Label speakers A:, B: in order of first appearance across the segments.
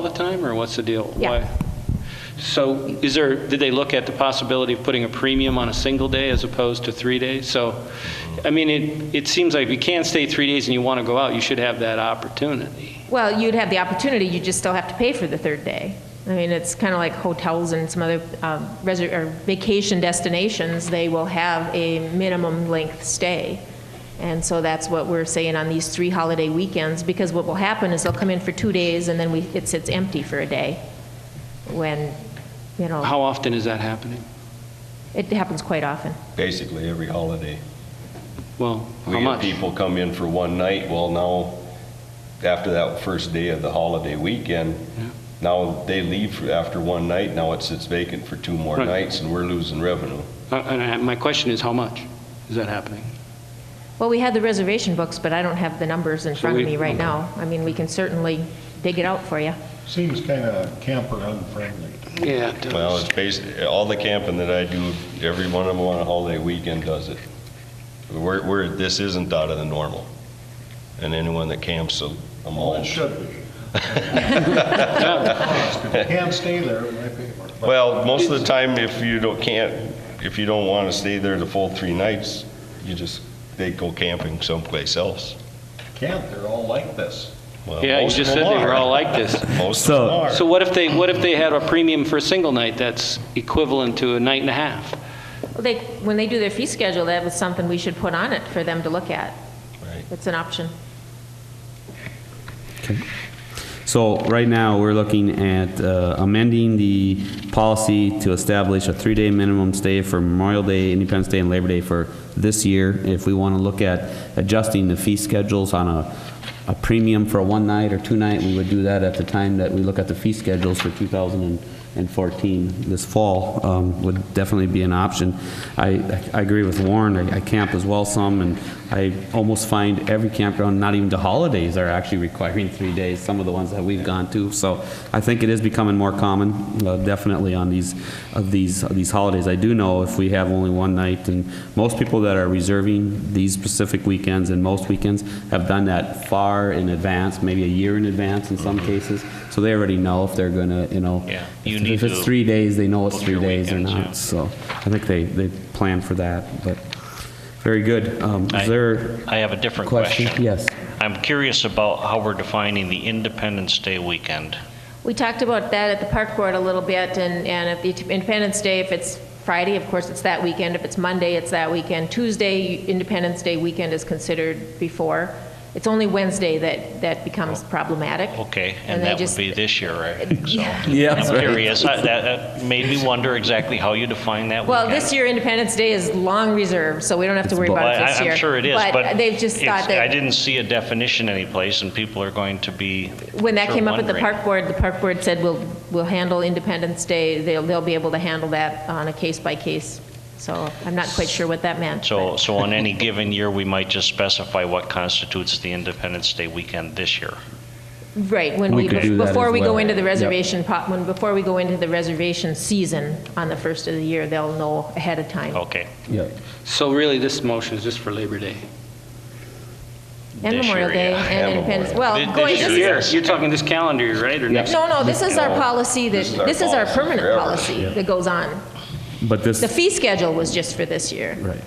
A: the time, or what's the deal?
B: Yeah.
A: Why? So is there, did they look at the possibility of putting a premium on a single day as opposed to three days? So, I mean, it, it seems like if you can't stay three days and you want to go out, you should have that opportunity.
B: Well, you'd have the opportunity, you just still have to pay for the third day. I mean, it's kind of like hotels and some other um, reser- or vacation destinations, they will have a minimum length stay. And so that's what we're saying on these three holiday weekends, because what will happen is they'll come in for two days and then we, it sits empty for a day when, you know,
A: How often is that happening?
B: it happens quite often.
C: basically every holiday.
A: Well,
C: We
A: how
C: had
A: much?
C: people come in for one night, well, now, after that first day of the holiday weekend, now they leave for- after one night, now it sits vacant for two more
A: Right.
C: nights, and we're losing revenue.
A: Uh, And I- my question is, how much is that happening?
B: Well, we had the reservation books, but I don't have the numbers in
A: So
B: front of
A: we-
B: me right now. I mean, we can certainly dig it out for you.
D: Seems kind of camper unfriendly.
A: Yeah. it does.
C: Well, it's basically, all the camping that I do, every one of them on a holiday weekend does it. We're, we're, this isn't out of the normal. And anyone that camps, so I'm all.
D: It should be. Can't stay there, I pay for it.
C: Well, most of the time, if you don't, can't, if you don't want to stay there the full three nights, you just, they go camping someplace else.
D: Camp, they're all like this.
C: Well,
A: Yeah, you
C: most of
A: just said
C: them
A: they were
C: are.
A: all like this.
C: Most of them
E: So-
C: are.
A: So what if they, what if they had a premium for a single night that's equivalent to a night and a half?
B: Well, They, when they do their fee schedule, that was something we should put on it for them to look at.
C: Right.
B: It's an option.
E: So right now, we're looking at uh, amending the policy to establish a three-day minimum stay for Memorial Day, Independence Day, and Labor Day for this year. If we want to look at adjusting the fee schedules on a, a premium for a one night or two night, we would do that at the time that we look at the fee schedules for 2014. This fall um, would definitely be an option. I, I agree with Warren, I I camp as well some, and I almost find every campground, not even the holidays, are actually requiring three days, some of the ones that we've gone to. So I think it is becoming more common, uh, definitely on these, of these, of these holidays. I do know if we have only one night, and most people that are reserving these specific weekends and most weekends have done that far in advance, maybe a year in advance in some cases. So they already know if they're gonna, you know.
F: Mm-hmm. Yeah, you
E: If
F: need
E: if it's
F: to
E: three days, they know it's
F: book
E: three
F: your
E: days or
F: weekends,
E: not.
F: yeah.
E: So I think they, they plan for that, but very good. Um,
F: I-
E: Is there
F: I have a different
E: question?
F: question.
E: Yes.
F: I'm curious about how we're defining the Independence Day weekend.
B: We talked about that at the park board a little bit, and, and if the Independence Day, if it's Friday, of course, it's that weekend. If it's Monday, it's that weekend. Tuesday, Independence Day weekend is considered before. It's only Wednesday that, that becomes problematic.
F: Oh. Okay,
B: And
F: and
B: they
F: that would
B: just-
F: be this year, right? So
E: Yeah,
F: I'm
E: right.
F: curious. I- That that made me wonder exactly how you define that
B: Well,
F: weekend.
B: this year Independence Day is long reserved, so we don't have to worry
E: It's-
B: about
F: Well,
B: it
F: I-
B: this year.
F: I'm sure it is, but.
B: But they've just
F: it's-
B: thought that.
F: I didn't see a definition anyplace, and people are going to be.
B: When that
F: sure
B: came up at the
F: wondering.
B: park board, the park board said, we'll, we'll handle Independence Day, they'll, they'll be able to handle that on a case by case. So I'm not quite sure what that meant.
F: So, so on any given year, we might just specify what constitutes the Independence Day weekend this year.
B: Right, when
E: We
B: we,
E: could do that
B: before
E: as
B: we go
E: well.
B: into the
E: Yep.
B: reservation, po- when, before we go into the reservation season on the first of the year, they'll know ahead of time.
F: Okay.
E: Yeah.
A: So really, this motion is just for Labor Day?
B: And
F: this
B: Memorial
F: year,
B: Day
F: yeah.
B: and
C: And
B: Independence,
C: Memorial.
F: Th-
B: well,
F: this
B: going,
F: year,
B: this
F: yeah.
A: Here,
F: Yes.
A: you're talking this calendar year, right, or next?
B: no, no, this is our
C: No,
B: policy that,
C: this is our
B: this is our
C: policy
B: permanent
C: forever.
B: policy that goes on.
E: But this.
B: The fee schedule was just for this year.
E: Right.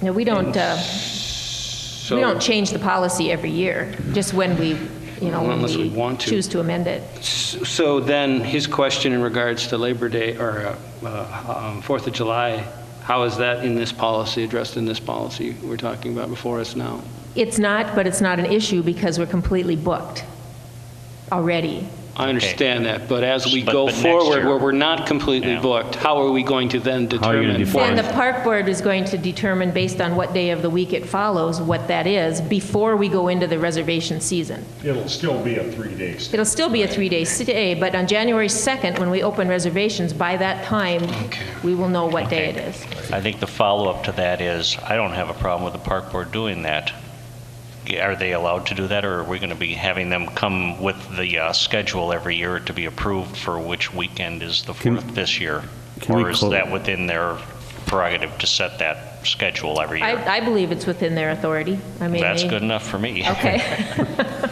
B: No, we don't, uh,
A: So-
B: We don't change the policy every year, just when we, you know, when
A: Unless we
B: we
A: want to.
B: choose to amend it.
A: So then, his question in regards to Labor Day, or uh, uh, um, Fourth of July, how is that in this policy, addressed in this policy we're talking about before us now?
B: It's not, but it's not an issue because we're completely booked already.
A: I understand that, but as we
F: But-
A: go
F: but next
A: forward,
F: year.
A: where we're not completely
F: Yeah.
A: booked, how are we going to then
E: How are you
A: determine?
E: gonna define
B: Then the park board is going to determine, based on what day of the week it follows, what that is, before we go into the reservation season.
D: It'll still be a three-day stay.
B: It'll still be a three-day stay, but on January 2nd, when we open reservations, by that time, we will know what day it is.
F: I think the follow-up to that is, I don't have a problem with the park board doing that. Are they allowed to do that, or are we going to be having them come with the uh, schedule every year to be approved for which weekend is the
E: Can-
F: fourth this year?
E: can we
F: Or is
E: clo-
F: that within their prerogative to set that schedule every year?
B: I, I believe it's within their authority. I mean,
F: That's
B: they-
F: good enough for me.
B: Okay.